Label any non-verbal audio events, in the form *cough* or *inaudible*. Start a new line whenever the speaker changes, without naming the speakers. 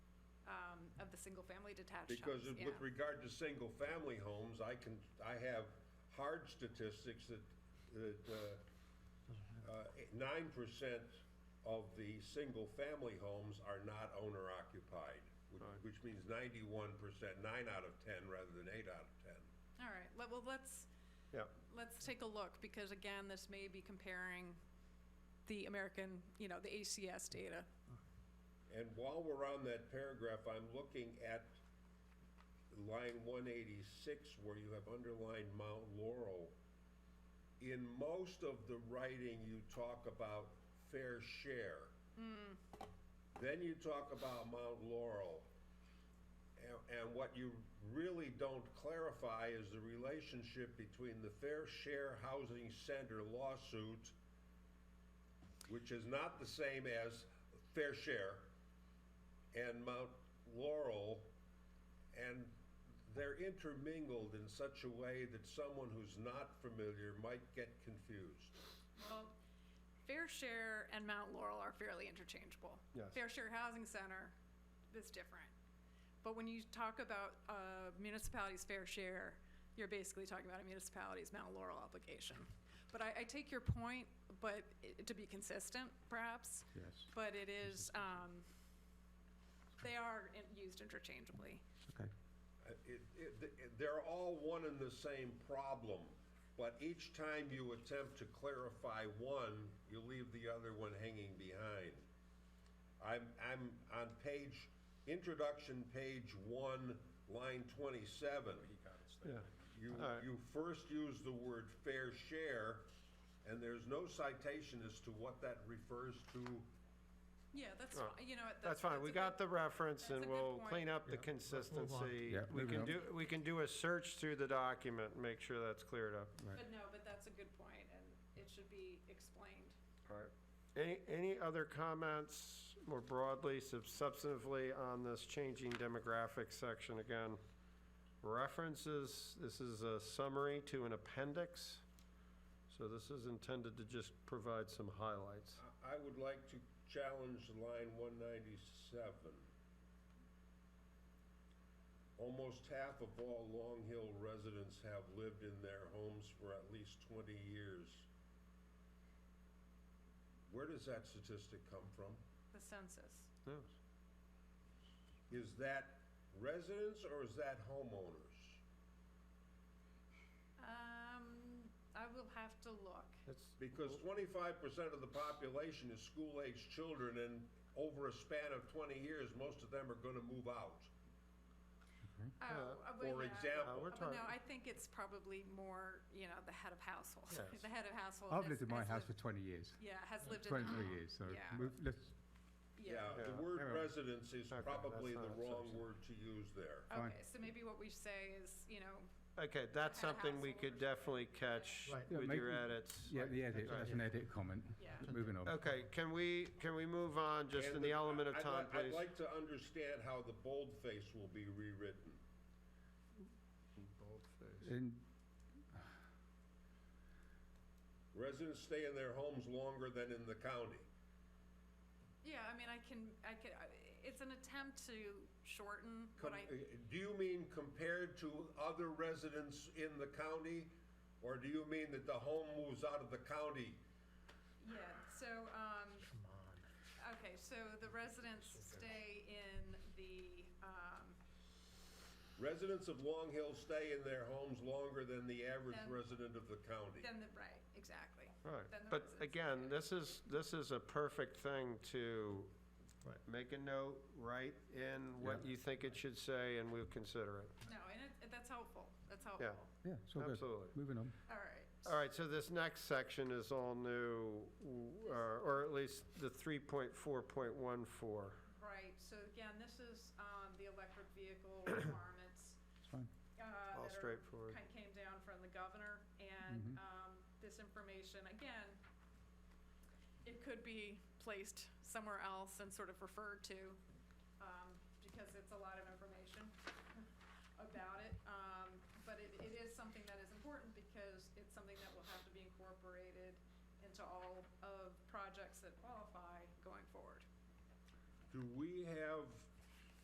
um, of the single-family detached homes.
Because of-
yeah.
with regard to single-family homes, I can, I have hard statistics that, that uh, nine percent of the single-family homes are not owner-occupied, which- which means ninety-one percent, nine out of ten rather than eight out of ten.
All right, le- well, let's,
Yeah.
let's take a look, because again, this may be comparing the American, you know, the ACS data.
And while we're on that paragraph, I'm looking at line one eighty-six where you have underlined Mount Laurel. In most of the writing, you talk about fair share. Then you talk about Mount Laurel. And, and what you really don't clarify is the relationship between the Fair Share Housing Center lawsuit, which is not the same as Fair Share, and Mount Laurel, and they're intermingled in such a way that someone who's not familiar might get confused.
Well, Fair Share and Mount Laurel are fairly interchangeable.
Yes.
Fair Share Housing Center is different. But when you talk about uh, municipalities' fair share, you're basically talking about a municipality's Mount Laurel obligation. But I, I take your point, but i- to be consistent, perhaps.
Yes.
But it is, um, they are in- used interchangeably.
Okay.
Uh, it- it- th- They're all one and the same problem, but each time you attempt to clarify one, you leave the other one hanging behind. I'm, I'm on page, introduction, page one, line twenty-seven.
Yeah.
You,
All right.
you first use the word fair share, and there's no citation as to what that refers to.
Yeah, that's,
Oh,
fine. you know, what, that's.
That's fine,
that's
we
a
got
good-
the reference
that's a
and
good
we'll
point.
clean up the
Yeah,
consistency. We
move
can
on.
do, we can do a search through the document, make sure that's cleared up.
But no, but that's a good point, and it should be explained.
All right. Any, any other comments more broadly, sub- substantively on this changing demographics section again? References, this is a summary to an appendix. So this is intended to just provide some highlights.
I- I would like to challenge line one ninety-seven. Almost half of all Long Hill residents have lived in their homes for at least twenty years. Where does that statistic come from?
The census.
Yes.
Is that residents or is that homeowners?
Um, I will have to look.
That's,
Because twenty-five percent of the population is school-aged children, and over a span of twenty years, most of them are gonna move out.
Oh, uh, but yeah.
For
uh,
example,
we're
Uh, but
talking,
No, I think it's probably more, you know, the head of household. *laughs*
Yes.
The head of household.
I've
has-
lived in my
has
house for
lived-
20 years,
Yeah, has lived in.
23 years, so
ah, yeah.
move, let's,
yeah,
Yeah.
the
Yeah.
word
Yeah.
residence is
Okay,
probably the
that's not
wrong
acceptable.
word to use there.
Fine.
Okay, so maybe what we say is, you know,
okay, that's
Had a
something we
household or
could definitely catch
Right.
Yeah,
with
make-
your edits.
yeah, the edit, that's an edit comment,
yeah.
moving on.
Okay, can we, can we move on just in
And
the element of
I'd
time,
li- I'd
please?
like to understand how the boldface will be rewritten.
And,
Residents stay in their homes longer than in the county.
Yeah, I mean, I can, I could, I- it's an attempt to shorten what I,
Com- uh, Do you mean compared to other residents in the county? Or do you mean that the home moves out of the county?
yeah, so, um, okay, so the residents stay in the, um,
Residents of Long Hill stay in their homes longer than the average
Than-
resident of the county.
then the, right, exactly.
Right,
Then the
but
residents
again,
get it.
this is, this is a perfect thing to
Right.
make a note, write in what you think it should say, and we'll consider it.
No, and it, that's helpful, that's helpful.
yeah, it's all good,
Absolutely.
moving on.
All right.
All right, so this next section is all new, w- or or at least the 3.4.14.
Right, so again, this is, um, the electric
*coughs*
vehicle requirements.
It's fine.
uh,
All
that are-
straightforward. Mm-hmm.
Kind came down from the governor, and, um, this information, again, it could be placed somewhere else and sort of referred to, um, because it's a lot of information *laughs* about it. Um, but it, it is something that is important because it's something that will have to be incorporated into all of projects that qualify going forward.
Do we have